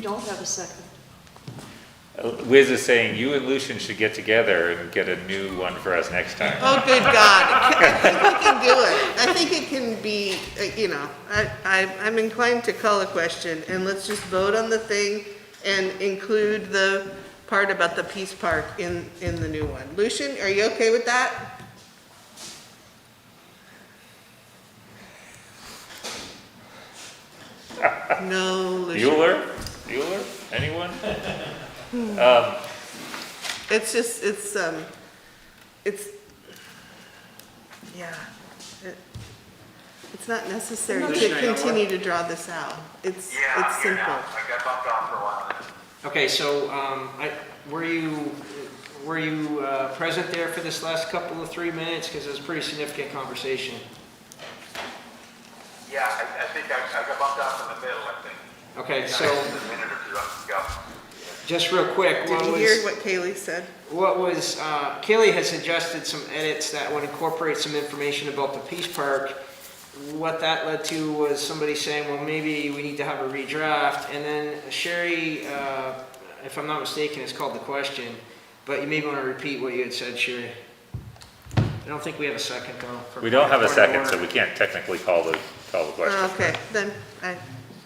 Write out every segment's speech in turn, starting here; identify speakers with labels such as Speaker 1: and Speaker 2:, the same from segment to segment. Speaker 1: don't have a second.
Speaker 2: Liz is saying you and Lucian should get together and get a new one for us next time.
Speaker 3: Oh, good God. I can do it. I think it can be, uh, you know, I, I, I'm inclined to call a question and let's just vote on the thing and include the part about the Peace Park in, in the new one. Lucian, are you okay with that? No, Lucian.
Speaker 2: Bueller? Bueller? Anyone?
Speaker 3: It's just, it's, um, it's, yeah. it- It's not necessary to continue to draw this out. It's,
Speaker 4: Yeah,
Speaker 3: it's
Speaker 4: I'm here
Speaker 3: simple.
Speaker 4: now. I got bumped off for a while.
Speaker 5: Okay, so, um, I, were you, were you, uh, present there for this last couple of three minutes? Because it was a pretty significant conversation.
Speaker 4: Yeah, I, I think I, I got bumped off in the middle, I think.
Speaker 5: Okay, so,
Speaker 4: A minute or two ago.
Speaker 5: just real quick,
Speaker 3: Did
Speaker 5: what
Speaker 3: you hear
Speaker 5: was,
Speaker 3: what Kaylee said?
Speaker 5: what was, uh, Kaylee had suggested some edits that would incorporate some information about the Peace Park. What that led to was somebody saying, well, maybe we need to have a redraft, and then Sherry, uh, if I'm not mistaken, it's called the question, but you may want to repeat what you had said, Sherry. I don't think we have a second, though. for-
Speaker 2: We don't have a
Speaker 5: for
Speaker 2: second, so
Speaker 5: order.
Speaker 2: we can't technically call the, call the question.
Speaker 3: Okay, then, I,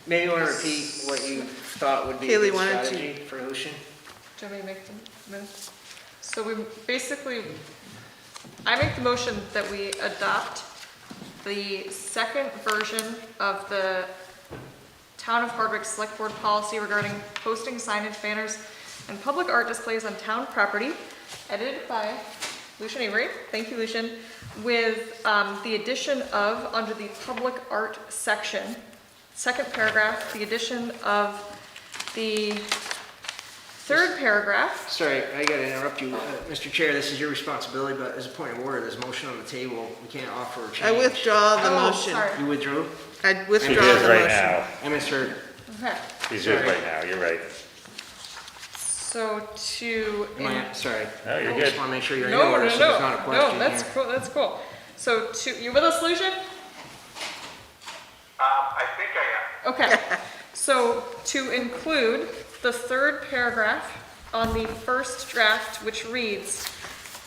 Speaker 5: Maybe you want to repeat what you thought would be a
Speaker 3: Kaylee,
Speaker 5: good
Speaker 3: why don't you-
Speaker 5: strategy for Lucian?
Speaker 6: Do you want me to make the move? So we basically, I make the motion that we adopt the second version of the Town of Hardwick Select Board policy regarding posting signage banners and public art displays on town property, edited by Lucian Avery, thank you, Lucian, with um, the addition of, under the public art section, second paragraph, the addition of the third paragraph,
Speaker 5: Sorry, I gotta interrupt you. Uh, Mr. Chair, this is your responsibility, but as a point of order, there's a motion on the table. We can't offer a change.
Speaker 3: I withdraw the
Speaker 6: Oh,
Speaker 3: motion.
Speaker 6: sorry.
Speaker 5: You withdrew?
Speaker 3: I
Speaker 2: She
Speaker 3: withdraw
Speaker 2: is
Speaker 3: the
Speaker 2: right
Speaker 3: motion.
Speaker 2: now.
Speaker 5: I misheard.
Speaker 6: Okay,
Speaker 2: She's just right now, you're right.
Speaker 6: so to.
Speaker 5: Am I, sorry.
Speaker 2: No, you're
Speaker 5: I
Speaker 2: good.
Speaker 5: just wanna make sure you're in
Speaker 6: No,
Speaker 5: order,
Speaker 6: no,
Speaker 5: so
Speaker 6: no,
Speaker 5: there's not a
Speaker 6: no,
Speaker 5: question
Speaker 6: that's
Speaker 5: here.
Speaker 6: cool, that's cool. So to, you with us, Lucian?
Speaker 4: Um, I think I am.
Speaker 6: Okay, so to include the third paragraph on the first draft, which reads,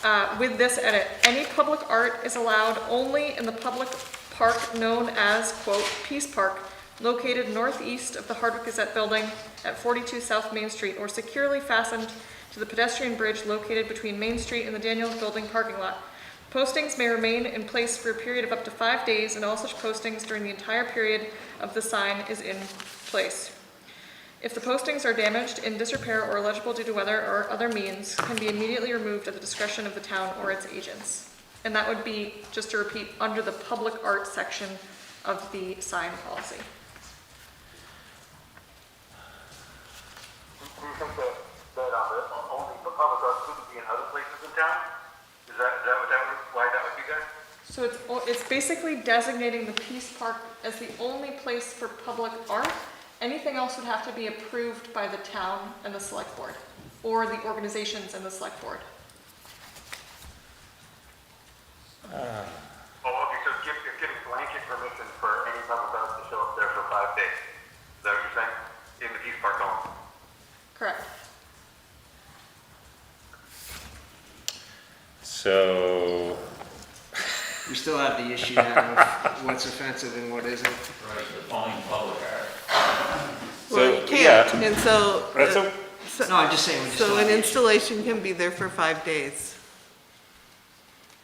Speaker 6: uh, with this edit, any public art is allowed only in the public park known as, quote, Peace Park, located northeast of the Hardwick Gazette Building at 42 South Main Street, or securely fastened to the pedestrian bridge located between Main Street and the Daniels Building parking lot. Postings may remain in place for a period of up to five days, and all such postings during the entire period of the sign is in place. If the postings are damaged, in disrepair, or illegible due to weather or other means, can be immediately removed at the discretion of the town or its agents. And that would be, just to repeat, under the public art section of the sign policy.
Speaker 4: Do you think that, that, uh, the- only the public art couldn't be in other places in town? Is that, is that what that, would- why that would be there?
Speaker 6: So it's, o- it's basically designating the Peace Park as the only place for public art. Anything else would have to be approved by the town and the select board, or the organizations and the select board.
Speaker 4: Oh, okay, so give, you're giving blanket permission for any public art to show up there for five days. Is that what you're saying? In the Peace Park only?
Speaker 6: Correct.
Speaker 2: So,
Speaker 5: We still have the issue now of what's offensive and what isn't.
Speaker 3: Well,
Speaker 2: So,
Speaker 3: you can't,
Speaker 2: yeah.
Speaker 3: and so,
Speaker 2: that's,
Speaker 3: uh,
Speaker 2: a-
Speaker 5: No, I'm just saying, we just
Speaker 3: so
Speaker 5: don't
Speaker 3: an
Speaker 5: have the issue.
Speaker 3: installation can be there for five days.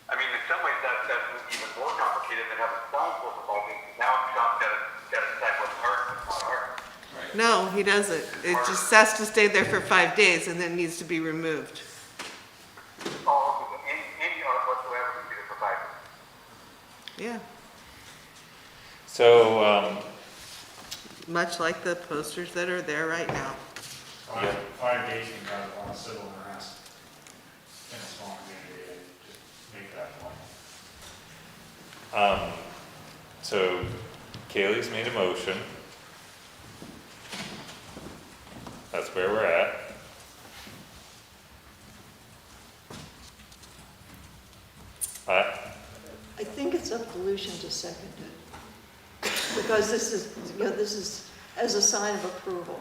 Speaker 4: I mean, in some ways, that, that's even more complicated than having signs for the ball game. Now, Sean's got to, got to decide what's art and what's not
Speaker 3: No,
Speaker 4: art.
Speaker 3: he doesn't. It just has to stay there for five days and then needs to be removed.
Speaker 4: Oh, okay, any, any art whatsoever can be there for five days.
Speaker 3: Yeah,
Speaker 2: so, um,
Speaker 3: much like the posters that are there right now.
Speaker 7: Five, five days you got on civil unrest in a small community, just make that one.
Speaker 2: um, so Kaylee's made a motion. That's where we're at. I,
Speaker 1: I think it's up to Lucian to second it. Because this is, you know, this is as a sign of approval.